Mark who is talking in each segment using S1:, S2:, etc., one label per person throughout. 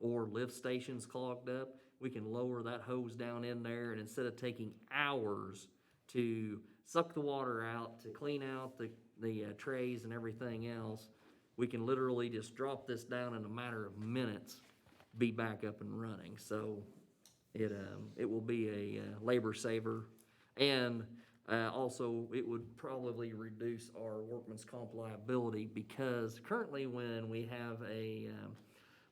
S1: or lift stations clogged up, we can lower that hose down in there and instead of taking hours to suck the water out, to clean out the, the uh, trays and everything else, we can literally just drop this down in a matter of minutes, be back up and running. So it, um, it will be a uh, labor saver. And, uh, also, it would probably reduce our workman's comp liability because currently when we have a, um,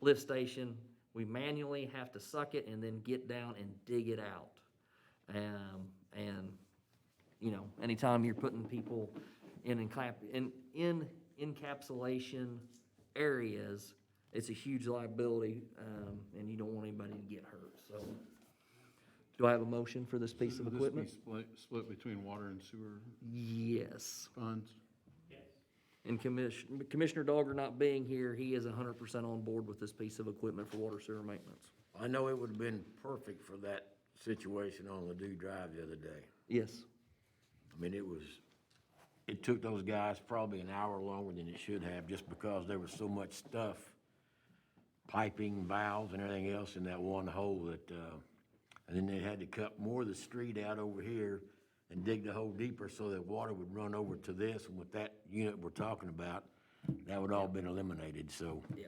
S1: lift station, we manually have to suck it and then get down and dig it out. Um, and you know, anytime you're putting people in encap, in, in encapsulation areas, it's a huge liability, um, and you don't want anybody to get hurt, so. Do I have a motion for this piece of
S2: Would this be
S1: equipment?
S2: Split, split between water and sewer
S1: Yes.
S2: funds?
S1: And Commissioner, Commissioner Dogger not being here, he is hundred percent on board with this piece of equipment for water sewer maintenance.
S3: I know it would have been perfect for that situation on Ladue Drive the other day.
S1: Yes.
S3: I mean, it was, it took those guys probably an hour longer than it should have, just because there was so much stuff, piping, valves, and everything else in that one hole that, uh, and then they had to cut more of the street out over here and dig the hole deeper so that water would run over to this, and with that unit we're talking about, that would all been eliminated, so.
S1: Yeah.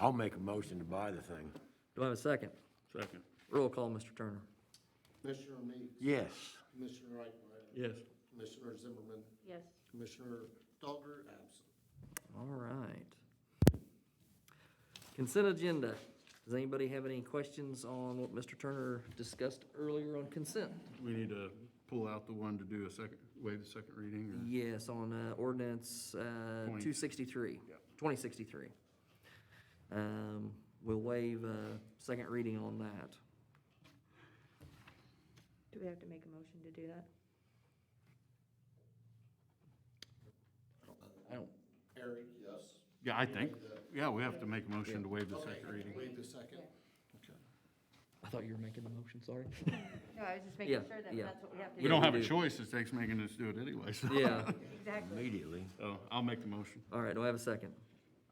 S3: I'll make a motion to buy the thing.
S1: Do I have a second?
S2: Second.
S1: Roll call, Mr. Turner.
S4: Commissioner Meeks.
S3: Yes.
S4: Commissioner Wright.
S2: Yes.
S4: Commissioner Zimmerman.
S5: Yes.
S4: Commissioner Dogger, absent.
S1: All right. Consent agenda. Does anybody have any questions on what Mr. Turner discussed earlier on consent?
S2: We need to pull out the one to do a second, waive the second reading
S1: Yes, on uh, ordinance uh,
S2: Twenty.
S1: 263,
S2: Yep.
S1: 2063. Um, We'll waive uh, second reading on that.
S5: Do we have to make a motion to do that?
S1: I don't,
S4: Harry? Yes.
S2: or? Yeah, I think, yeah, we have to make a motion to waive the second reading.
S4: Wait a second. Okay.
S1: I thought you were making the motion, sorry.
S5: No, I was just
S1: making Yeah, sure that yeah. that's
S5: what we have to
S2: We don't have a
S1: do.
S2: choice, it takes making us do it anyway, so.
S1: Yeah,
S5: Exactly.
S3: Immediately.
S2: So I'll make the motion.
S1: all right, do I have a second?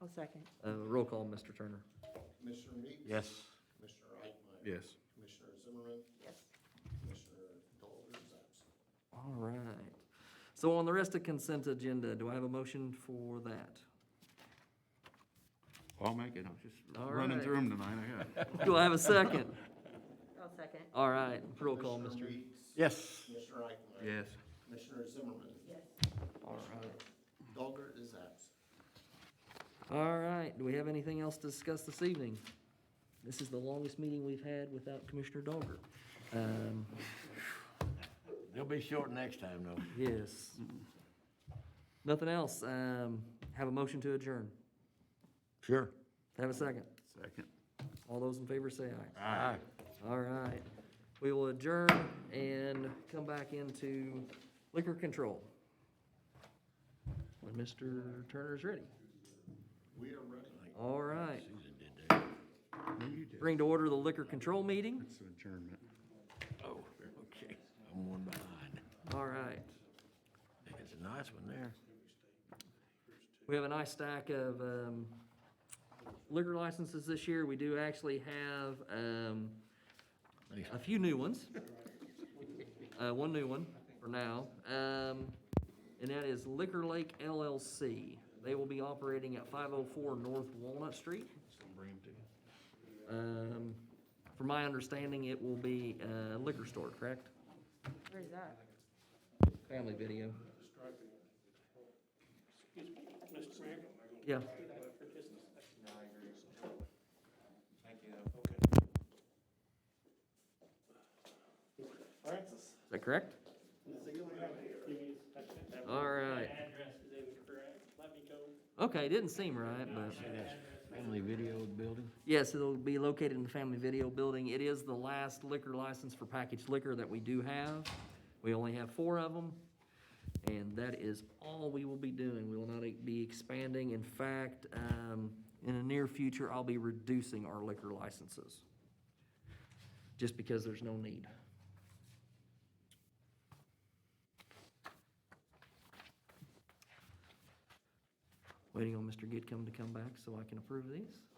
S5: I'll second.
S1: Uh, Roll call, Mr. Turner.
S4: Commissioner Meeks.
S3: Yes.
S4: Commissioner Wright.
S2: Yes.
S4: Commissioner Zimmerman.
S5: Yes.
S4: Commissioner Dogger is absent.
S1: All right. So on the rest of consent agenda, do I have a motion for that?
S2: I'll make it, I'm just
S1: All
S2: running
S1: right.
S2: through them tonight, I got it.
S1: Do I have a second?
S5: I'll second.
S1: All right, roll call, E.
S4: Commissioner
S1: Mr.
S4: Meeks.
S3: Yes.
S4: Commissioner Wright.
S2: Yes.
S4: Commissioner Zimmerman.
S5: Yes.
S1: All right.
S4: Dogger is absent.
S1: All right, do we have anything else to discuss this evening? This is the longest meeting we've had without Commissioner Dogger. Um,
S3: They'll be short next time, though.
S1: yes. Nothing else, um, have a motion to adjourn.
S3: Sure.
S1: Have a second.
S2: Second.
S1: All those in favor say aye.
S3: Aye.
S1: All right, we will adjourn and come back into liquor control. When Mr. Turner's ready.
S4: We are ready.
S1: All right,
S3: Susan did that.
S2: You did.
S1: bring to order the liquor control meeting.
S2: It's adjournment.
S3: Oh, okay. I'm one behind.
S1: All right.
S3: It's a nice one there.
S1: We have a nice stack of um, liquor licenses this year. We do actually have um, a few new ones. Uh, One new one for now. um, And that is Liquor Lake LLC. They will be operating at 504 North Walnut Street. Um, From my understanding, it will be a liquor store, correct?
S5: Where's that?
S1: Family video.
S6: Excuse me, Mr. Mayor,
S1: Yeah.
S6: for business.
S1: Is that correct? All right.
S6: Address is incorrect, let me go.
S1: Okay, didn't seem right, but.
S3: Family video building.
S1: Yes, it'll be located in the Family Video Building. It is the last liquor license for packaged liquor that we do have. We only have four of them, and that is all we will be doing. We will not e-, be expanding. In fact, um, in the near future, I'll be reducing our liquor licenses, just because there's no need. Waiting on Mr. Gidcombe to come back so I can approve these.